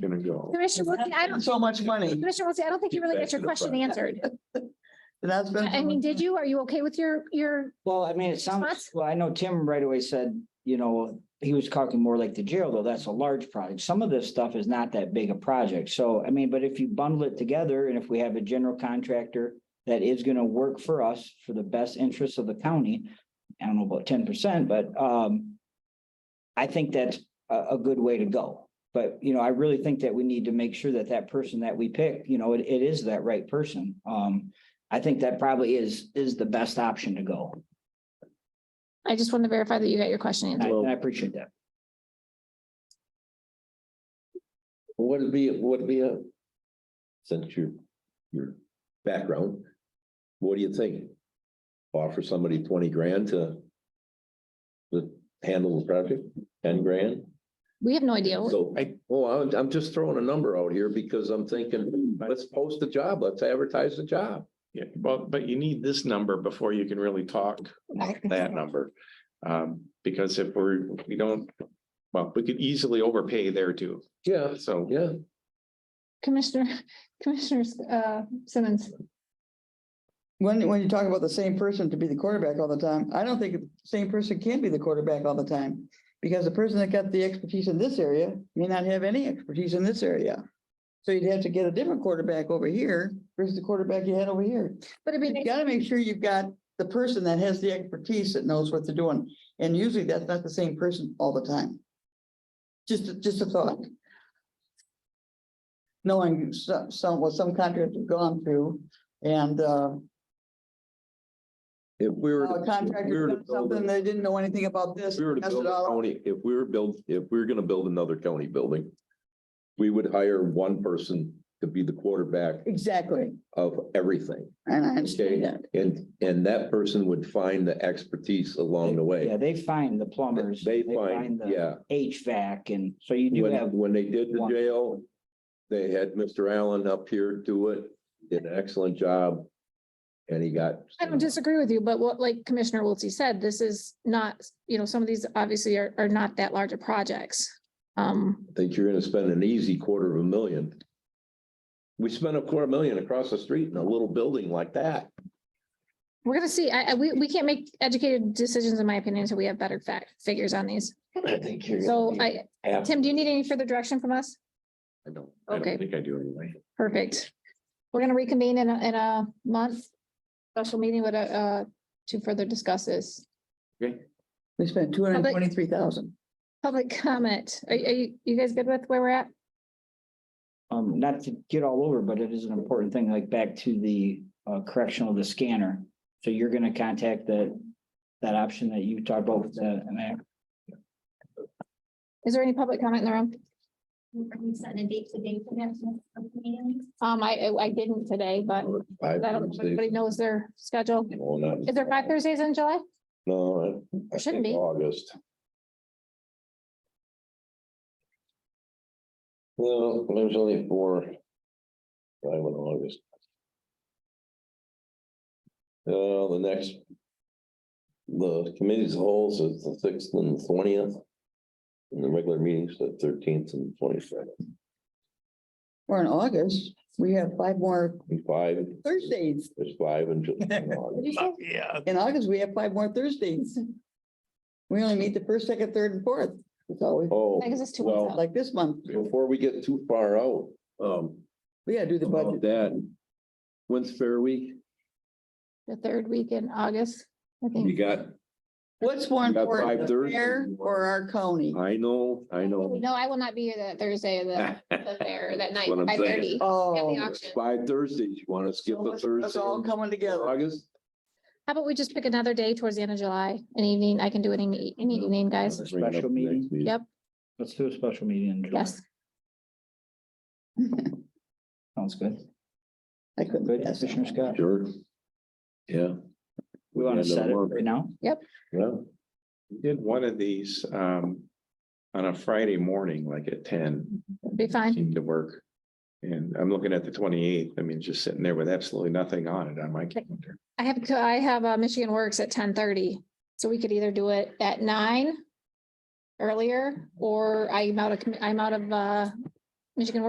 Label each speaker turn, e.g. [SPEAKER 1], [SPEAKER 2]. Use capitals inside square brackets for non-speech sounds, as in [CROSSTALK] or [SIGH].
[SPEAKER 1] gonna go.
[SPEAKER 2] Commissioner Wiltie, I don't,
[SPEAKER 3] So much money.
[SPEAKER 2] Commissioner Wiltie, I don't think you really
[SPEAKER 1] Back
[SPEAKER 2] got your
[SPEAKER 1] to the
[SPEAKER 2] question
[SPEAKER 1] front.
[SPEAKER 2] answered.
[SPEAKER 3] That's been.
[SPEAKER 2] I mean, did you? Are you okay with your, your,
[SPEAKER 4] Well, I mean, it sounds,
[SPEAKER 2] Response?
[SPEAKER 4] well, I know Tim right away said, you know, he was talking more like the jail, though. That's a large project. Some of this stuff is not that big a project. So, I mean, but if you bundle it together and if we have a general contractor that is gonna work for us for the best interests of the county, I don't know about ten percent, but um I think that's a, a good way to go. But, you know, I really think that we need to make sure that that person that we pick, you know, it, it is that right person. Um, I think that probably is, is the best option to go.
[SPEAKER 2] I just wanted to verify that you got your question
[SPEAKER 4] And I-
[SPEAKER 2] answered.
[SPEAKER 4] and I appreciate that.
[SPEAKER 1] Would it be, would it be a, since your, your background, what do you think? Offer somebody twenty grand to to handle the project, ten grand?
[SPEAKER 2] We have no idea.
[SPEAKER 1] So, well, I'm, I'm just throwing a number out here because I'm thinking, let's post the job, let's advertise the job.
[SPEAKER 5] Yeah, but, but you need this number before you can really talk about that number. Um, because if we're, we don't, well, we could easily overpay there too.
[SPEAKER 1] Yeah,
[SPEAKER 5] So
[SPEAKER 1] yeah.
[SPEAKER 2] Commissioner, [LAUGHS] Commissioners, uh, Simmons,
[SPEAKER 3] When, when you talk about the same person to be the quarterback all the time, I don't think the same person can be the quarterback all the time. Because the person that got the expertise in this area may not have any expertise in this area. So you'd have to get a different quarterback over here versus the quarterback you had over here.
[SPEAKER 2] but it'd be
[SPEAKER 3] You
[SPEAKER 2] nice-
[SPEAKER 3] gotta make sure you've got the person that has the expertise that knows what they're doing, and usually that's not the same person all the time. Just, a- just a thought. Knowing some, some, what some contractors have gone through, and, uh,
[SPEAKER 1] If we were.
[SPEAKER 3] a contractor done something, they didn't know anything about this.
[SPEAKER 1] If we were to
[SPEAKER 3] messed it
[SPEAKER 1] build a
[SPEAKER 3] all up.
[SPEAKER 1] county, if we were build, if we were gonna build another county building. We would hire one person to be the quarterback
[SPEAKER 3] Exactly,
[SPEAKER 1] of everything.
[SPEAKER 3] and I
[SPEAKER 1] Okay,
[SPEAKER 3] understand that.
[SPEAKER 1] and, and that person would find the expertise along the
[SPEAKER 4] Yeah,
[SPEAKER 1] way.
[SPEAKER 4] they find the plumbers.
[SPEAKER 1] They find,
[SPEAKER 4] the
[SPEAKER 1] yeah,
[SPEAKER 4] HVAC and so you do
[SPEAKER 1] when,
[SPEAKER 4] have,
[SPEAKER 1] when they did the
[SPEAKER 4] one.
[SPEAKER 1] jail, they had Mr. Allen up here do it, did an excellent job. And he got.
[SPEAKER 2] I don't disagree with you, but what, like Commissioner Wiltie said, this is not, you know, some of these obviously are, are not that large of projects. Um,
[SPEAKER 1] Think you're gonna spend an easy quarter of a million. We spent a quarter million across the street in a little building like that.
[SPEAKER 2] we're gonna see, I, I, we, we can't make educated decisions, in my opinion, until we have better fact, figures on these.
[SPEAKER 1] I think you're.
[SPEAKER 2] So I, Tim, do you need any further direction from us?
[SPEAKER 1] I don't, I
[SPEAKER 2] Okay.
[SPEAKER 1] don't think I do anyway.
[SPEAKER 2] Perfect. We're gonna reconvene in a, in a month. Special meeting with a, uh, to further discuss this.
[SPEAKER 3] We spent two hundred and twenty-three thousand.
[SPEAKER 2] Public comment. Are, are you, you guys good with where we're at?
[SPEAKER 4] um, not to get all over, but it is an important thing, like back to the uh, correctional, the scanner. So you're gonna contact the, that option that you talked about with the, and that-
[SPEAKER 2] Is there any public comment in the room?
[SPEAKER 6] Are we setting a date today for that meeting?
[SPEAKER 2] Um, I, I didn't today, but I
[SPEAKER 1] Five
[SPEAKER 2] don't, know if
[SPEAKER 1] Thursdays.
[SPEAKER 2] everybody knows their schedule.
[SPEAKER 1] No, not-
[SPEAKER 2] Is there five Thursdays in July?
[SPEAKER 1] No. I- I
[SPEAKER 2] Shouldn't
[SPEAKER 1] think
[SPEAKER 2] be.
[SPEAKER 1] August. Well, there's only four. I went August. Uh, the next. The committee's holes is the sixth and twentieth. And the regular meetings the thirteenth and twenty-second,
[SPEAKER 3] We're in August, we have five more
[SPEAKER 1] five,
[SPEAKER 3] Thursdays.
[SPEAKER 1] there's five in Ju-
[SPEAKER 2] [LAUGHS]
[SPEAKER 1] in August.
[SPEAKER 5] Yeah.
[SPEAKER 3] In August, we have five more Thursdays. We only meet the first, second, third, and fourth. It's always
[SPEAKER 1] Oh,
[SPEAKER 2] I guess it's two
[SPEAKER 1] well,
[SPEAKER 2] months out.
[SPEAKER 3] like this month.
[SPEAKER 1] before we get too far out, um,
[SPEAKER 3] We gotta do the
[SPEAKER 1] about
[SPEAKER 3] budget.
[SPEAKER 1] that. When's Fair Week?
[SPEAKER 2] The third week in August, I
[SPEAKER 1] You
[SPEAKER 2] think.
[SPEAKER 1] got,
[SPEAKER 3] What's more
[SPEAKER 1] You got five
[SPEAKER 3] important, the
[SPEAKER 1] Thursdays.
[SPEAKER 3] fair or our county?
[SPEAKER 1] I know, I know.
[SPEAKER 2] No, I will not be here that Thursday,
[SPEAKER 1] [LAUGHS]
[SPEAKER 2] of the, the fair, that night,
[SPEAKER 1] What I'm
[SPEAKER 2] five thirty.
[SPEAKER 1] saying.
[SPEAKER 2] How
[SPEAKER 3] Oh.
[SPEAKER 2] auction.
[SPEAKER 1] Five Thursdays, you wanna skip a
[SPEAKER 3] It's
[SPEAKER 1] Thursday?
[SPEAKER 3] all
[SPEAKER 1] in
[SPEAKER 3] coming together.
[SPEAKER 1] August?
[SPEAKER 2] about we just pick another day towards the end of July, an evening? I can do any, any evening, guys.
[SPEAKER 1] Bring it up
[SPEAKER 4] Special
[SPEAKER 1] next
[SPEAKER 4] meeting.
[SPEAKER 1] meeting.
[SPEAKER 2] Yep.
[SPEAKER 4] let's do a special meeting. in July.
[SPEAKER 2] Yes.
[SPEAKER 4] Sounds good.
[SPEAKER 3] I couldn't.
[SPEAKER 4] Good,
[SPEAKER 3] pass
[SPEAKER 4] Commissioner
[SPEAKER 3] that.
[SPEAKER 4] Scott.
[SPEAKER 1] Sure. Yeah.
[SPEAKER 4] We want
[SPEAKER 1] Yeah, no
[SPEAKER 4] to set it
[SPEAKER 1] more.
[SPEAKER 4] right now.
[SPEAKER 1] Yeah,
[SPEAKER 5] We Did one of these, um, on a Friday morning, like at ten,
[SPEAKER 2] Be fine.
[SPEAKER 5] seemed to work. And I'm looking at the twenty-eighth, I mean, just sitting there with absolutely nothing on it on my calendar.
[SPEAKER 2] I have, I have uh, Michigan Works at ten thirty, so we could either do it at nine earlier, or I'm out of, commi- I'm out of uh, mean, you can work